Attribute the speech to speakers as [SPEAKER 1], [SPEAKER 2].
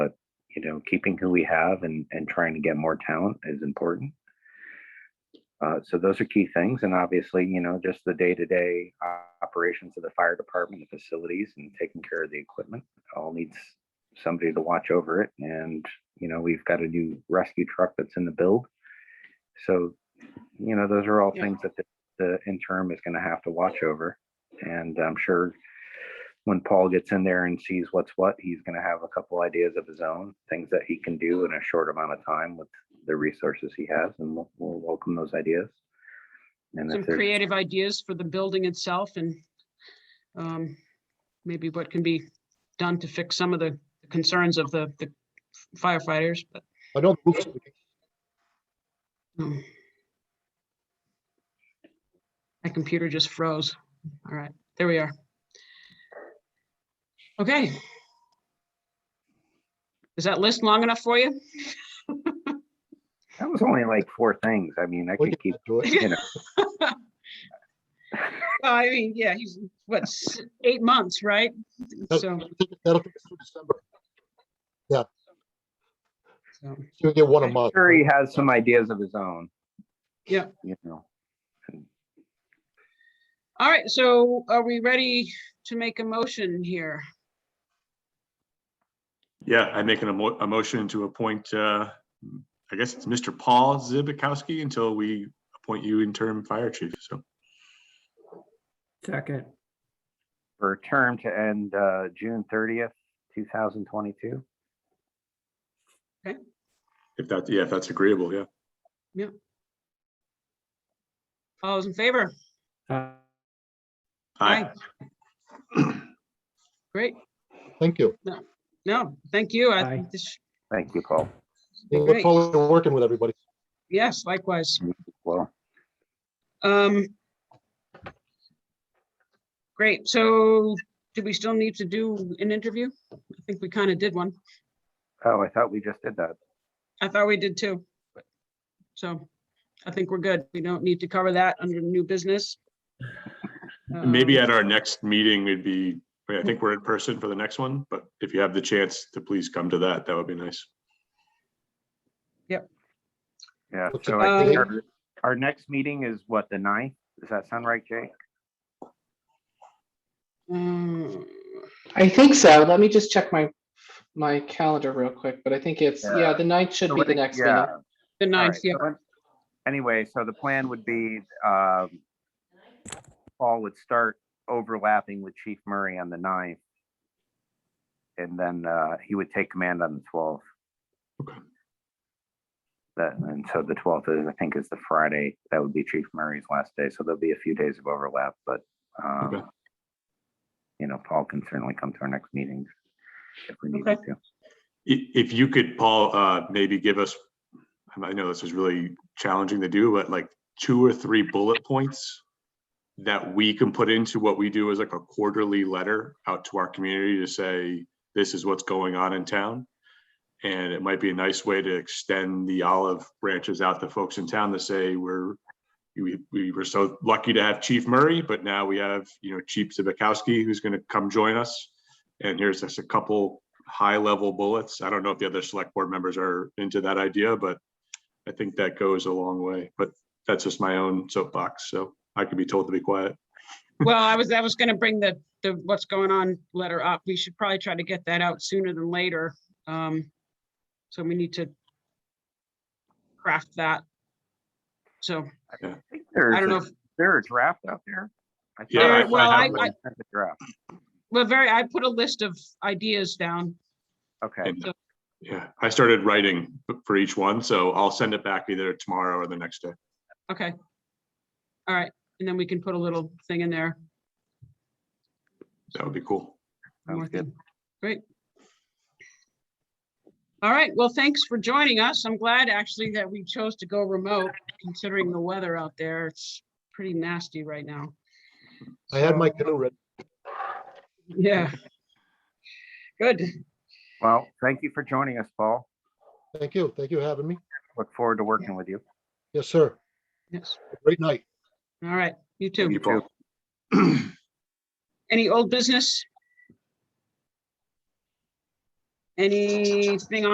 [SPEAKER 1] you know, keeping who we have and and trying to get more talent is important. Uh, so those are key things, and obviously, you know, just the day-to-day operations of the fire department, the facilities, and taking care of the equipment all needs somebody to watch over it. And you know, we've got a new rescue truck that's in the build, so you know, those are all
[SPEAKER 2] Yeah.
[SPEAKER 1] things that the, the interim is going to have to watch over. And I'm sure when Paul gets in there and sees what's what, he's going to have a couple ideas of his own, things that he can do in a short amount of time with the resources he has, and we'll, we'll welcome those ideas. And
[SPEAKER 2] Some
[SPEAKER 1] if there's,
[SPEAKER 2] creative ideas for the building itself and um, maybe what can be done to fix some of the concerns of the the firefighters, but.
[SPEAKER 3] I know the roof's leaking.
[SPEAKER 2] um, My computer just froze. All right, there we are. Okay. Is that list long enough for you?
[SPEAKER 1] that was only like four things. I mean, I
[SPEAKER 3] We
[SPEAKER 1] can keep,
[SPEAKER 3] do it.
[SPEAKER 1] you know,
[SPEAKER 2] I mean, yeah, he's, what, s- eight months, right? So,
[SPEAKER 3] That'll take us through December.
[SPEAKER 2] so,
[SPEAKER 3] So we get one a
[SPEAKER 2] I'm
[SPEAKER 3] month.
[SPEAKER 1] sure he has some ideas of his own.
[SPEAKER 2] Yeah.
[SPEAKER 1] You know,
[SPEAKER 2] all right, so are we ready to make a motion here?
[SPEAKER 4] Yeah, I make an emo- a motion to appoint, uh, I guess it's Mr. Paul Zibikowski until we appoint you interim fire chief. So
[SPEAKER 5] Second,
[SPEAKER 1] for a term to end, uh, June thirtieth, two thousand twenty-two.
[SPEAKER 4] if that, yeah, if that's agreeable, yeah.
[SPEAKER 2] All those in favor?
[SPEAKER 5] uh,
[SPEAKER 4] Aye.
[SPEAKER 2] Great.
[SPEAKER 3] Thank you.
[SPEAKER 2] No, thank you. I
[SPEAKER 5] Aye.
[SPEAKER 2] think this,
[SPEAKER 1] Thank you, Paul.
[SPEAKER 3] We Look
[SPEAKER 2] Great.
[SPEAKER 3] forward to working with everybody.
[SPEAKER 2] yes, likewise.
[SPEAKER 1] Well,
[SPEAKER 2] Um. Great, so do we still need to do an interview? I think we kind of did one.
[SPEAKER 1] oh, I thought we just did that.
[SPEAKER 2] I thought we did too. but- So I think we're good. We don't need to cover that under new business.
[SPEAKER 4] Maybe
[SPEAKER 2] Um,
[SPEAKER 4] at our next meeting, it'd be, I think we're in person for the next one, but if you have the chance to please come to that, that would be nice.
[SPEAKER 1] Yeah,
[SPEAKER 3] Looks
[SPEAKER 1] so
[SPEAKER 3] like
[SPEAKER 1] I think
[SPEAKER 2] they-
[SPEAKER 1] our, our next meeting is what, the ninth? Does that sound right, Jake?
[SPEAKER 2] um,
[SPEAKER 6] I think so. Let me just check my, my calendar real quick, but I think it's,
[SPEAKER 1] Yeah.
[SPEAKER 6] yeah, the ninth should
[SPEAKER 1] So
[SPEAKER 6] be
[SPEAKER 1] what
[SPEAKER 6] the
[SPEAKER 1] it-
[SPEAKER 6] next
[SPEAKER 1] yeah,
[SPEAKER 6] meeting.
[SPEAKER 1] all
[SPEAKER 2] The ninth,
[SPEAKER 1] right,
[SPEAKER 2] yeah,
[SPEAKER 1] so it- Anyway, so the plan would be, um, Paul would start overlapping with Chief Murray on the ninth. And then, uh, he would take command on the twelfth.
[SPEAKER 4] Okay.
[SPEAKER 1] That, and so the twelfth is, I think, is the Friday. That would be Chief Murray's last day, so there'll be a few days of overlap, but,
[SPEAKER 4] Okay.
[SPEAKER 1] um, you know, Paul can certainly come to our next meetings if we need
[SPEAKER 2] Okay.
[SPEAKER 1] him to.
[SPEAKER 4] I- If you could, Paul, uh, maybe give us, I know this is really challenging to do, but like two or three bullet points that we can put into what we do as like a quarterly letter out to our community to say, this is what's going on in town. And it might be a nice way to extend the olive branches out to folks in town to say, we're, we, we were so lucky to have Chief Murray, but now we have, you know, Chief Zibikowski who's gonna come join us. And here's just a couple high level bullets. I don't know if the other select board members are into that idea, but I think that goes a long way, but that's just my own soapbox, so I could be told to be quiet.
[SPEAKER 2] well, I was, I was gonna bring the, the what's going on letter up. We should probably try to get that out sooner than later. Um, so we need to craft that. So I don't know if
[SPEAKER 1] there a draft out there? I
[SPEAKER 4] Yeah,
[SPEAKER 1] thought
[SPEAKER 4] I-
[SPEAKER 1] I
[SPEAKER 4] I
[SPEAKER 2] well,
[SPEAKER 1] saw
[SPEAKER 2] I-
[SPEAKER 1] someone sent the draft.
[SPEAKER 2] Well, very, I put a list of ideas down.
[SPEAKER 1] Okay,
[SPEAKER 4] And- Yeah, I started writing for each one, so I'll send it back either tomorrow or the next day.
[SPEAKER 2] Okay. All right, and then we can put a little thing in there.
[SPEAKER 4] That would be cool.
[SPEAKER 2] one more
[SPEAKER 1] sounds good.
[SPEAKER 2] thing. Great. All right, well, thanks for joining us. I'm glad actually that we chose to go remote considering the weather out there. It's pretty nasty right now.
[SPEAKER 3] I had my canoe ready.
[SPEAKER 2] Yeah. Good.
[SPEAKER 1] Well, thank you for joining us, Paul.
[SPEAKER 3] Thank you. Thank you for having me.
[SPEAKER 1] Look forward to working with you.
[SPEAKER 3] Yes, sir.
[SPEAKER 2] Yes.
[SPEAKER 3] Great night.
[SPEAKER 2] All right, you
[SPEAKER 4] Thank
[SPEAKER 2] too.
[SPEAKER 4] you, Paul.
[SPEAKER 2] Any old business? Anything on?